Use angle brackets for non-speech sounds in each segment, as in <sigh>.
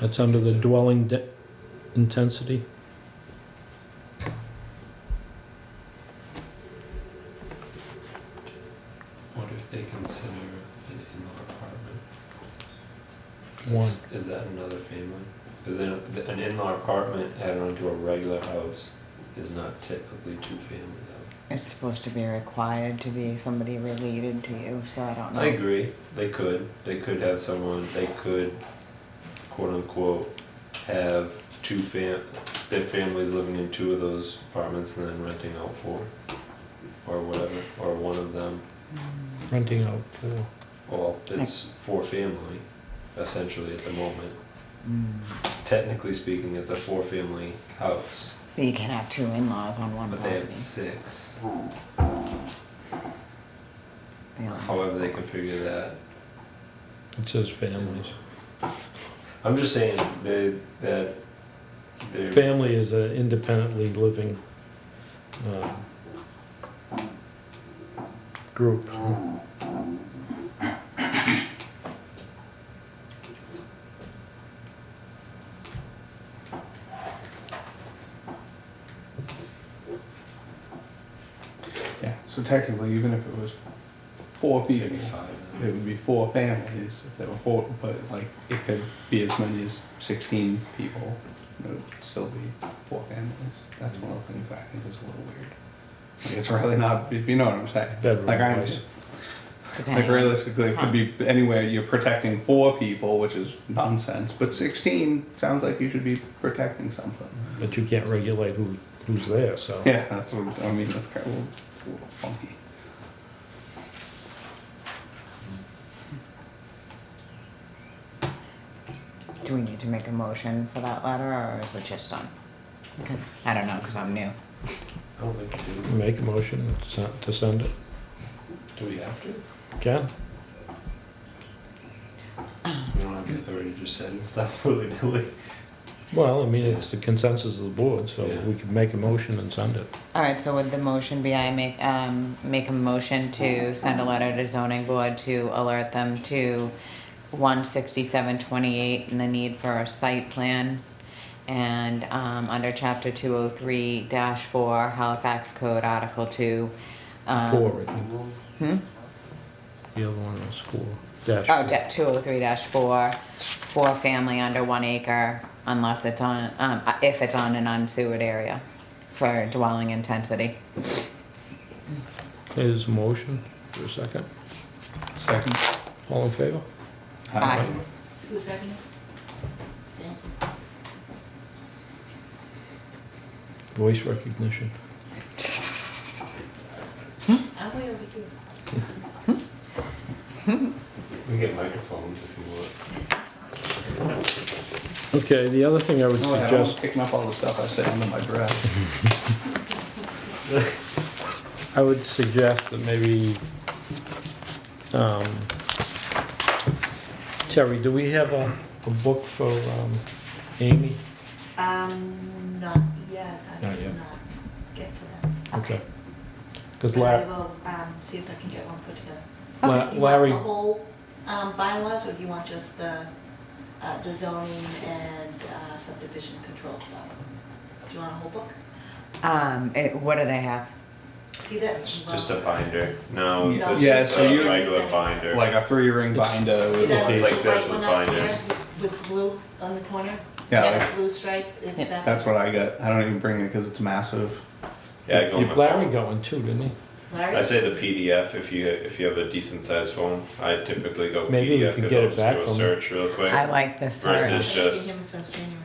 That's under the dwelling de- intensity. What if they consider an in-law apartment? One. Is- Is that another family? But Then, th- an in-law apartment added onto a regular house is not typically two-family though. It's supposed to be required to be somebody related to you, so I don't know. I agree, they could, they could have someone, they could quote-unquote have two fam, their families living in two of those apartments and then renting out four. Or whatever, or one of them, Mm. Renting out for. well, it's four-family essentially at the moment. Mm. technically speaking, it's a four-family house, But you can have two in-laws on one but they property. have six. They like- However, they configure that. It says families. I'm just saying they, that they're Family is an independently living um, group. Yeah, so technically, even if it was four people, five. it would be four families if there were four, but like, it could be as many as sixteen people. and It would still be four families. That's one of the things I think is a little weird. Like, it's really not, if you know what I'm saying. Bedroom Like, I'm, wise. like depending on- realistically, it could be anywhere, you're protecting four people, which is nonsense, but sixteen sounds like you should be protecting something. But you can't regulate who, who's there, so. Yeah, that's what, I mean, that's kind of, it's a little funky. Do we need to make a motion for that letter, or is it just done? Okay. I don't know, because I'm new. I don't think we do. Make a motion sen- to send it. Do we have to? Ken? We don't have the authority to just send stuff <laughs> willy-nilly. Well, I mean, it's the consensus of the board, so Yeah. we could make a motion and send it. All right, so would the motion be I make, um, make a motion to send a letter to zoning board to alert them to one sixty-seven twenty-eight and the need for a site plan? And, um, under chapter two oh three dash four Halifax Code Article two. Uh, um, Four, I think. Hmm? The other one was four. Dash. Oh, da- two oh three dash four, for family under one acre unless it's on, um, if it's on an unsewered area for dwelling intensity. Is motion for a second. Second. All in favor? Aye. Who seconded? Dan? Voice recognition. I'm way over here. We can get microphones if you want. Okay, the other thing I would Oh, yeah, I was suggest, picking up all the stuff I said under my breath. I would suggest that maybe, um, Terry, do we have a, a book for, um, Amy? Um, not yet, I Not did yet. not get to that. Okay. Cause But I La- will, um, see if I can get one put together. La- Do you want Larry, the whole, um, bylaws, or do you want just the, uh, the zoning and uh, subdivision control stuff? Do you want a whole book? Um, it, what do they have? See that? It's just a binder. No, Yeah. it's Yeah, just so a you- regular binder. Like a three ring It's- binder. See With that It's yeah, like little this white with one up there binders. With blue on the corner? like, Blue stripe, it's that. that's what I got. I don't even bring it because it's massive. Yeah, I go on my Larry phone. got one too, didn't he? Larry? I say the PDF if you, if you have a decent sized phone. I typically go Maybe we PDF could because get I'll it back just do from- a search real quick. I like this I haven't search. Versus- It's just- seen him since January.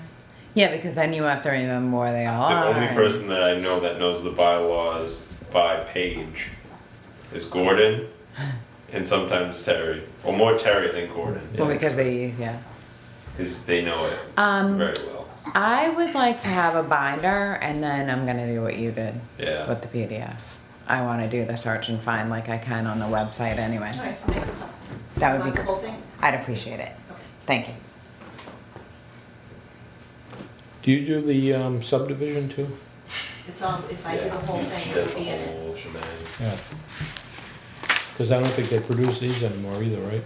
Yeah, because then you have to remember where they all The are. only person that I know that knows the bylaws by page is Gordon and sometimes Terry, or more Terry than Gordon, Well, because they, yeah. because they know it Um, very well. I would like to have a binder, and then I'm gonna do what you did Yeah. with the PDF. I want to do the search and find like I can on the website anyway. All right, so maybe. That would be Want the good. whole thing? I'd appreciate it. Okay. Thank you. Do you do the, um, subdivision too? It's all, if I do the whole thing, it That's would the be in it. whole shebang. Yeah. Cause I don't think they produce these anymore either, right?